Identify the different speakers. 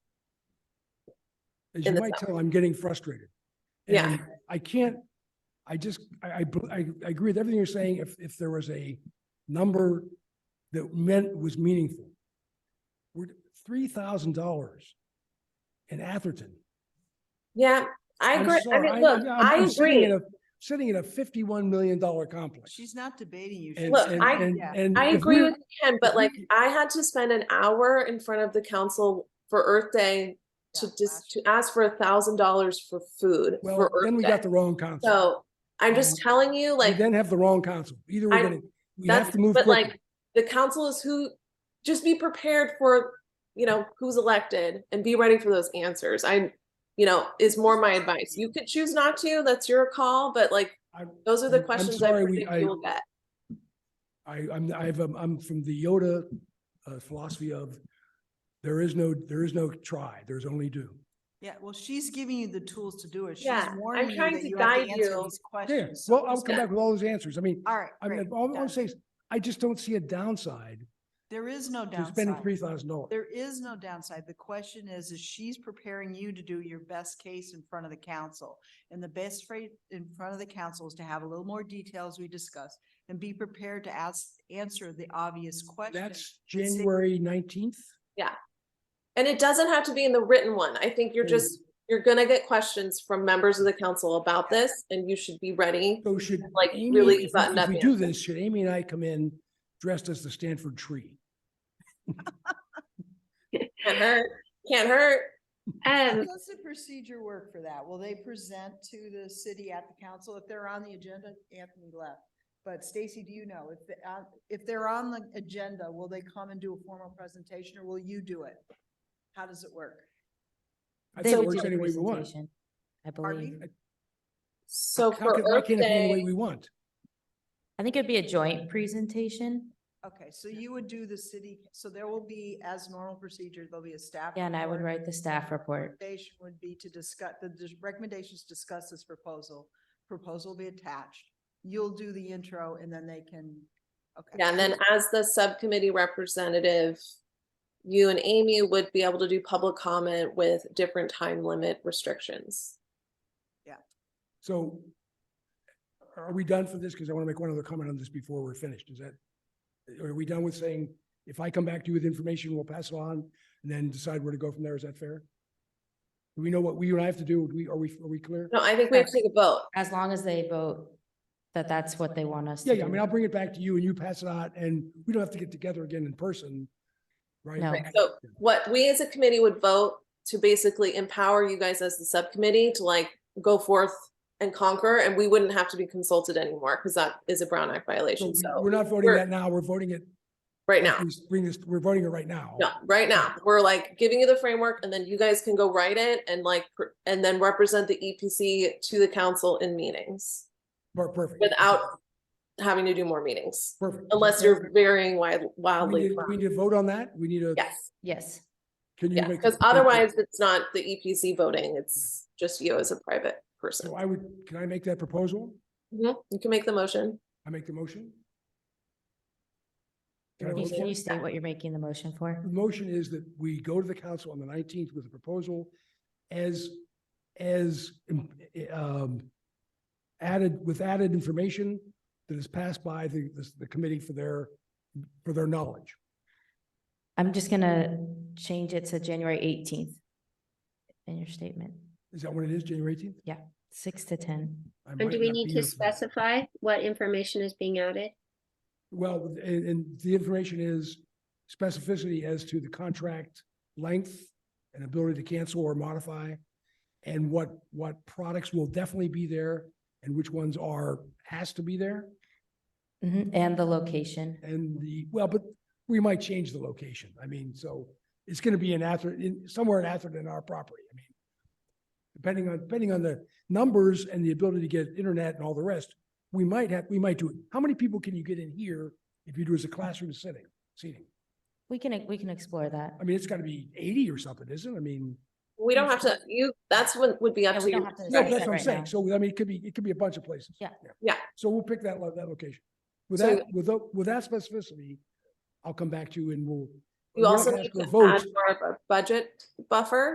Speaker 1: As you
Speaker 2: in the
Speaker 1: might tell, I'm getting frustrated.
Speaker 2: Yeah.
Speaker 1: And I can't, I just, I, I, bel- I I agree with everything you're saying. If, if there was a number that meant, was meaningful. We're three thousand dollars in Atherton.
Speaker 2: Yeah, I
Speaker 1: I'm
Speaker 2: agree. I
Speaker 1: sorry,
Speaker 2: mean,
Speaker 1: I'm-
Speaker 2: look, I
Speaker 1: I'm sitting in
Speaker 2: agree.
Speaker 1: a- Sitting in a fifty-one million dollar complex.
Speaker 3: She's not debating you. she's
Speaker 1: And-
Speaker 2: Look,
Speaker 1: and-
Speaker 2: I-
Speaker 1: and-
Speaker 3: Yeah.
Speaker 1: and
Speaker 2: I
Speaker 1: if
Speaker 2: agree
Speaker 1: we're-
Speaker 2: with Ken, but
Speaker 1: if
Speaker 2: like
Speaker 1: we-
Speaker 2: I had to spend an hour in front of the council for Earth Day to
Speaker 3: Yeah,
Speaker 2: just
Speaker 3: last
Speaker 2: to ask for a thousand dollars for food
Speaker 1: Well,
Speaker 2: for
Speaker 1: then
Speaker 2: Earth
Speaker 1: we
Speaker 2: Day.
Speaker 1: got the wrong council.
Speaker 2: So I'm just
Speaker 1: Um,
Speaker 2: telling you,
Speaker 1: We
Speaker 2: like,
Speaker 1: then have the wrong council. Either we're
Speaker 2: I-
Speaker 1: gonna, we have
Speaker 2: that's,
Speaker 1: to move
Speaker 2: but
Speaker 1: quickly.
Speaker 2: like, the council is who, just be prepared for, you know, who's elected and be ready for those answers. I, you know, is more my advice. You could choose not to, that's your call, but like,
Speaker 1: I'm-
Speaker 2: those are the
Speaker 1: I'm- I'm
Speaker 2: questions
Speaker 1: sorry,
Speaker 2: I
Speaker 1: we-
Speaker 2: predict
Speaker 1: I-
Speaker 2: you'll get.
Speaker 1: I, I'm, I've, um, I'm from the Yoda uh, philosophy of there is no, there is no try, there's only do.
Speaker 3: Yeah, well, she's giving you the tools to do it. She's
Speaker 2: Yeah, I'm
Speaker 3: warning you
Speaker 2: trying
Speaker 3: that
Speaker 2: to
Speaker 3: you have
Speaker 2: guide
Speaker 3: to answer
Speaker 2: you.
Speaker 3: these
Speaker 1: Yeah,
Speaker 3: questions. so
Speaker 1: well, I'll
Speaker 3: just-
Speaker 1: come back with all those answers. I mean,
Speaker 3: All right,
Speaker 1: I
Speaker 3: great.
Speaker 1: mean, all I'm
Speaker 3: done.
Speaker 1: saying is, I just don't see a downside
Speaker 3: There is no
Speaker 1: to spending
Speaker 3: downside.
Speaker 1: three thousand dollars.
Speaker 3: There is no downside. The question is, is she's preparing you to do your best case in front of the council. And the best way in front of the council is to have a little more details we discussed and be prepared to ask, answer the obvious questions.
Speaker 1: That's
Speaker 3: Let's see.
Speaker 1: January nineteenth.
Speaker 2: And it doesn't have to be in the written one. I think you're
Speaker 1: Mm.
Speaker 2: just, you're gonna get questions from members of the council about this and you should be ready.
Speaker 1: So should
Speaker 2: Like,
Speaker 1: Amy,
Speaker 2: really
Speaker 1: if we-
Speaker 2: buttoned
Speaker 1: if
Speaker 2: up
Speaker 1: we do this, should Amy and I come in dressed as the Stanford tree?
Speaker 2: Can't hurt, can't hurt.
Speaker 3: How
Speaker 4: Um,
Speaker 3: does the procedure work for that? Will they present to the city at the council if they're on the agenda? Anthony left. But Stacy, do you know if, the- uh, if they're on the agenda, will they come and do a formal presentation or will you do it? How does it work?
Speaker 1: I
Speaker 4: they
Speaker 1: think it
Speaker 4: would
Speaker 1: works
Speaker 4: do
Speaker 1: any
Speaker 4: the
Speaker 1: way we want.
Speaker 4: presentation, I
Speaker 3: Pardon
Speaker 4: believe.
Speaker 3: me?
Speaker 2: So
Speaker 1: How
Speaker 2: for
Speaker 1: can- Why
Speaker 2: Earth
Speaker 1: can't it be any way
Speaker 2: Day,
Speaker 1: we want?
Speaker 4: I think it'd be a joint presentation.
Speaker 3: Okay, so you would do the city, so there will be, as normal procedure, there'll be a staff.
Speaker 4: Yeah, and I would
Speaker 3: report.
Speaker 4: write the staff report.
Speaker 3: Recommendation would be to discuss, the dis- recommendations discuss this proposal. Proposal will be attached. You'll do the intro and then they can, okay.
Speaker 2: yeah, and then as the subcommittee representative, you and Amy would be able to do public comment with different time limit restrictions.
Speaker 1: So are we done for this? Because I want to make one other comment on this before we're finished. Is that, are we done with saying, if I come back to you with information, we'll pass it on and then decide where to go from there? Is that fair? Do we know what we and I have to do? Do we, are we, are we clear?
Speaker 2: No, I think we have to
Speaker 4: Yes.
Speaker 2: take a vote.
Speaker 4: As long as they vote that that's what they want us to
Speaker 1: Yeah,
Speaker 4: do.
Speaker 1: yeah, I mean, I'll bring it back to you and you pass it on and we don't have to get together again in person, right?
Speaker 4: No.
Speaker 2: Right, so- What we as a committee would vote to basically empower you guys as the subcommittee to like go forth and conquer, and we wouldn't have to be consulted anymore because that is a Brown Act
Speaker 1: So
Speaker 2: violation.
Speaker 1: we-
Speaker 2: So
Speaker 1: we're not voting
Speaker 2: we're-
Speaker 1: that now. We're voting it.
Speaker 2: right now,
Speaker 1: we Bring this, we're voting it right now.
Speaker 2: no, right now, we're like giving you the framework and then you guys can go write it and like, pr- and then represent the EPC to the council in meetings
Speaker 1: Per- Perfect.
Speaker 2: without having to do more meetings,
Speaker 1: Perfect.
Speaker 2: unless you're varying wild-
Speaker 1: We
Speaker 2: wildly.
Speaker 1: need, we need to vote on that. We need a.
Speaker 2: Yes.
Speaker 4: Yes,
Speaker 1: Can you
Speaker 2: Yeah,
Speaker 1: make?
Speaker 2: because
Speaker 1: a-
Speaker 2: otherwise it's not the EPC voting, it's just you as a private person.
Speaker 1: So I would, can I make that proposal?
Speaker 2: Mhm, You can make the motion.
Speaker 1: I make the motion? Can I
Speaker 4: can you-
Speaker 1: vote for
Speaker 4: can you
Speaker 1: it? Mm-hmm.
Speaker 4: state what you're making the motion for?
Speaker 1: The motion is that we go to the council on the nineteenth with a proposal as, as um, um, added, with added information that is passed by the, this- the committee for their, for their knowledge.
Speaker 4: I'm just gonna change it to January eighteenth in your statement,
Speaker 1: Is that what it is, January eighteenth?
Speaker 4: six to ten. Or
Speaker 1: And
Speaker 4: might
Speaker 5: And do we need to specify what information is being added?
Speaker 1: Well, and, and the information is specificity as to the contract length and ability to cancel or modify, and what, what products will definitely be there, and which ones are, has to be there,
Speaker 4: Mhm, And the location.
Speaker 1: and the, well, but we might change the location. I mean, so it's gonna be in Atherton, in, somewhere in Atherton in our property, I mean. Depending on, depending on the numbers and the ability to get internet and all the rest, we might have, we might do it. How many people can you get in here if you do as a classroom sitting, seating?
Speaker 4: We can, we can explore that.
Speaker 1: I mean, it's gotta be eighty or something, isn't it? I mean,
Speaker 2: We don't have to, you, that's what would be up
Speaker 4: Yeah,
Speaker 2: to
Speaker 4: we don't
Speaker 2: you.
Speaker 4: have to
Speaker 1: no,
Speaker 4: Right,
Speaker 1: that's what I'm
Speaker 4: right now.
Speaker 1: saying. So, I mean, it could be, it could be a bunch of places.
Speaker 4: Yeah.
Speaker 2: Yeah.
Speaker 1: So we'll pick that, lo- that location. With
Speaker 2: So-
Speaker 1: that, with, tho- with that specificity, I'll come back to you and we'll. we're
Speaker 2: You
Speaker 1: not
Speaker 2: also
Speaker 1: gonna
Speaker 2: need
Speaker 1: ask for
Speaker 2: to
Speaker 1: a
Speaker 2: add
Speaker 1: vote.
Speaker 2: more of a budget buffer